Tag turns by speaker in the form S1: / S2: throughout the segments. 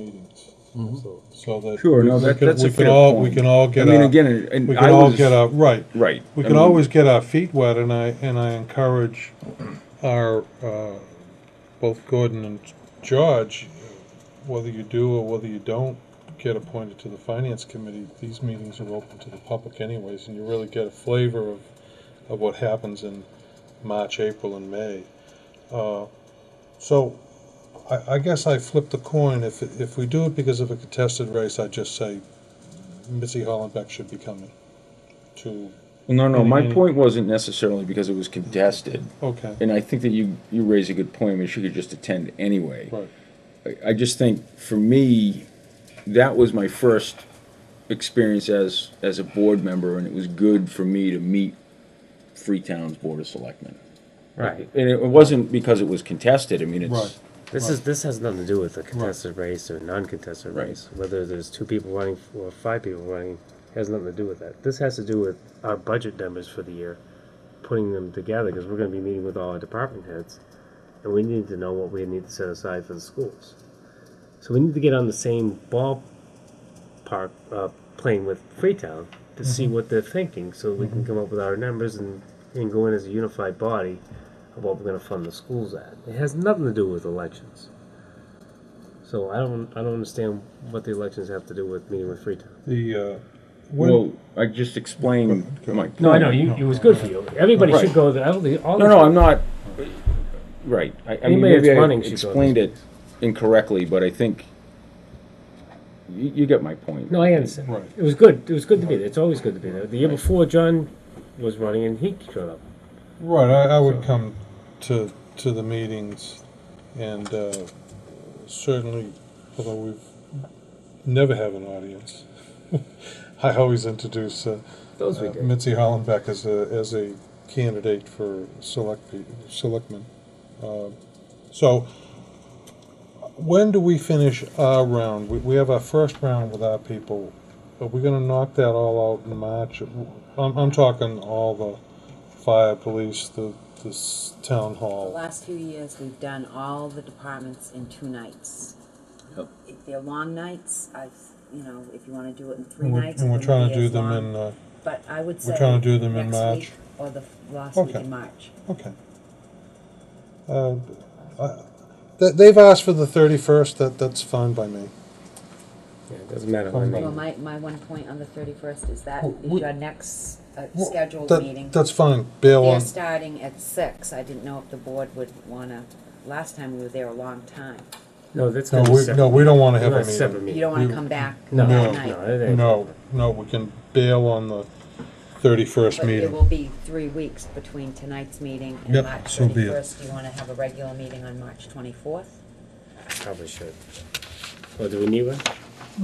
S1: meetings. So- So that.
S2: Sure, no,
S1: we
S2: that-
S1: can-
S2: that's a
S1: we can
S2: fair
S1: all-
S2: point.
S1: We can all
S2: I
S1: get.
S2: mean,
S1: our-
S2: again, and-
S1: We
S2: and
S1: can
S2: I
S1: all
S2: was,
S1: get our, right.
S2: right.
S1: We
S2: I
S1: can
S2: mean,
S1: always get our feet wet and I, and I encourage our, uh, both Gordon and George, whether you do or whether you don't get appointed to the finance committee, these meetings are open to the public anyways and you really get a flavor of, of what happens in March, April and May. Uh, So I, I guess I flip the coin. If, if we do it because of a contested race, I just say Missy Hollenbeck should be coming to
S2: Well, no, no, my
S1: Mhm.
S2: point wasn't necessarily because it was contested,
S1: Okay,
S2: and I think that you, you raise a good point, I mean, she could just attend anyway.
S1: right.
S2: I- I just think, for me, that was my first experience as, as a board member, and it was good for me to meet Freetown's Board of Selectmen.
S3: Right.
S2: And it wasn't because it was contested, I mean,
S1: Right.
S2: it's,
S3: This is, this has nothing to do with a contested race or non-contested
S2: Right.
S3: race. Whether there's two people running f- or five people running has nothing to do with that. This has to do with our budget numbers for the year, putting them together because we're going to be meeting with all our department heads, and we need to know what we need to set aside for the schools. So we need to get on the same ballpark uh, playing with Freetown to see what they're thinking, so we can come up with our numbers and and go in as a unified body of what we're going to fund the schools at. It has nothing to do with elections. So I don't, I don't understand what the elections have to do with meeting with Freetown.
S1: The, uh, when,
S2: well, I just explained my point.
S3: No, I know, you, it was good for you. Everybody
S2: Right.
S3: should go there. I don't think- all
S2: No,
S3: the-
S2: no, I'm not, right, I, I mean,
S3: Anybody that's
S2: maybe I
S3: running should go to
S2: explained it incorrectly, but I think, you, you get my point.
S3: No, I understand.
S1: Right.
S3: It was good, it was good to be there. It's always good to be there. The year before, John was running and he showed up.
S1: right, I, I would come to, to the meetings and, uh, certainly, although we've never have an audience, I always introduce, uh,
S3: Those we
S1: uh,
S3: did.
S1: Mitzi Hollenbeck as a, as a candidate for select, pe- selectman. Uh, So, when do we finish our round? We, we have our first round with our people. Are we gonna knock that all out in March? I'm, I'm talking all the fire, police, the, this town
S4: The
S1: hall.
S4: last few years, we've done all the departments in two nights.
S2: Yep.
S4: If they're long nights, I, you know, if you wanna do it in three
S1: And we're-
S4: nights.
S1: and we're
S4: it
S1: trying to
S4: won't
S1: do
S4: be as
S1: them
S4: long,
S1: in, uh,
S4: But I would say.
S1: we're trying to do them in
S4: next
S1: March.
S4: week Or the f- last week
S1: Okay.
S4: in March.
S1: Okay. Uh, I- th- They've asked for the thirty-first, that, that's fine by me.
S3: Yeah, it doesn't matter when
S4: Well,
S3: they,
S4: my, my one point on the thirty-first is that
S1: Well,
S4: is
S1: we-
S4: your next uh,
S1: Well,
S4: scheduled
S1: That-
S4: meeting.
S1: That's fine, bail
S4: They're
S1: on,
S4: starting at six. I didn't know if the board would wanna, last time we were there a long time.
S3: no, that's
S1: no,
S3: gonna be
S1: we, no,
S3: separate.
S1: we don't wanna have a
S3: That's
S1: meeting.
S3: separate
S4: You
S3: meeting.
S4: don't wanna
S1: We-
S4: come back
S3: No,
S4: that
S1: No.
S4: night.
S3: no, it ain't.
S1: No, no, we can bail on the thirty-first
S4: But it
S1: meeting.
S4: will be three weeks between tonight's meeting and
S1: Yep,
S4: March
S1: so be it.
S4: thirty-first. Do you wanna have a regular meeting on March twenty-fourth?
S3: Probably should. Well, do we need one?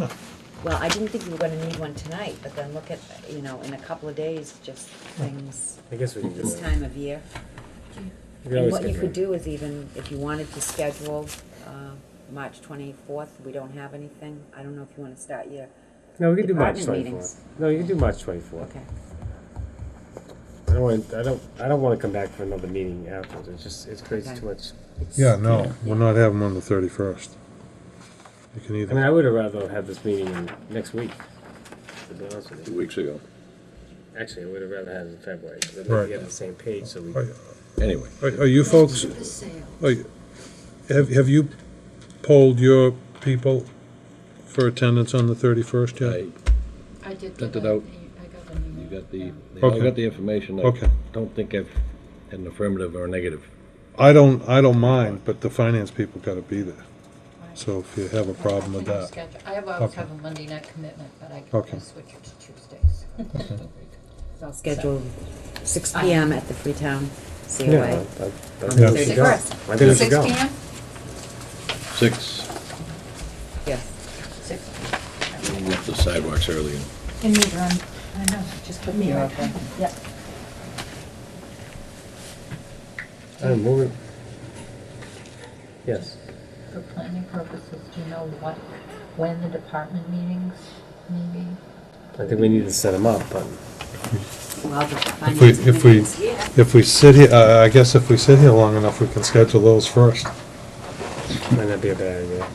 S4: Well, I didn't think you were gonna need one tonight, but then look at, you know, in a couple of days, just things
S3: I guess we can do
S4: this
S3: that.
S4: time of year.
S3: We can
S4: And
S3: always
S4: what you
S3: get
S4: could
S3: one.
S4: do is even, if you wanted to schedule, uh, March twenty-fourth, we don't have anything. I don't know if you wanna start your,
S3: No, we can do March
S4: Department
S3: twenty-fourth. No, you can do March twenty-fourth.
S4: okay.
S3: I don't want, I don't, I don't wanna come back for another meeting afterwards, it's just, it's crazy
S4: Okay.
S3: too much.
S4: It's-
S1: Yeah, no, we're not having them on the thirty-first. You can
S3: I mean,
S1: either,
S3: I would have rather had this meeting in next week, to be honest with you.
S5: two weeks ago.
S3: Actually, I would have rather had it in February, so that
S1: Right.
S3: we'd be on the same page, so we.
S1: Right.
S5: Anyway,
S1: are, are you folks, are you- have, have you polled your people for attendance on the thirty-first yet?
S5: I,
S6: I did
S5: Sent
S6: get
S5: it
S6: a-
S5: out.
S6: I got an
S5: you
S6: email.
S5: got the, they
S1: Okay.
S5: all got the information. I
S1: Okay.
S5: Don't think I've had an affirmative or a negative.
S1: I don't, I don't mind, but the finance people gotta be there. So if you have a
S6: I- I
S1: problem with
S6: can
S1: that.
S6: schedule- I have- always
S1: Okay.
S6: have a Monday night commitment, but I
S1: Okay.
S6: can switch it to Tuesdays.
S4: I'll schedule six
S3: uh,
S4: P M at the Freetown COA.
S3: I- I- I
S4: On
S3: think
S1: Yeah.
S4: the
S3: we should go. I
S4: 31st.
S3: think we should
S6: Six
S3: go.
S6: PM?
S5: Six,
S4: Yes.
S6: Six.
S5: we left the sidewalks early.
S6: In the room. I know, just put me right on. Yep.
S3: I'm moving. Yes,
S6: For planning purposes, do you know what, when the department meetings may be?
S3: I think we need to set them up, but
S4: Well,
S1: If
S4: the
S1: we,
S4: finance
S1: if we,
S4: committee's here.
S1: if we sit here, I, I guess if we sit here long enough, we can schedule those first.
S3: might not be a bad idea.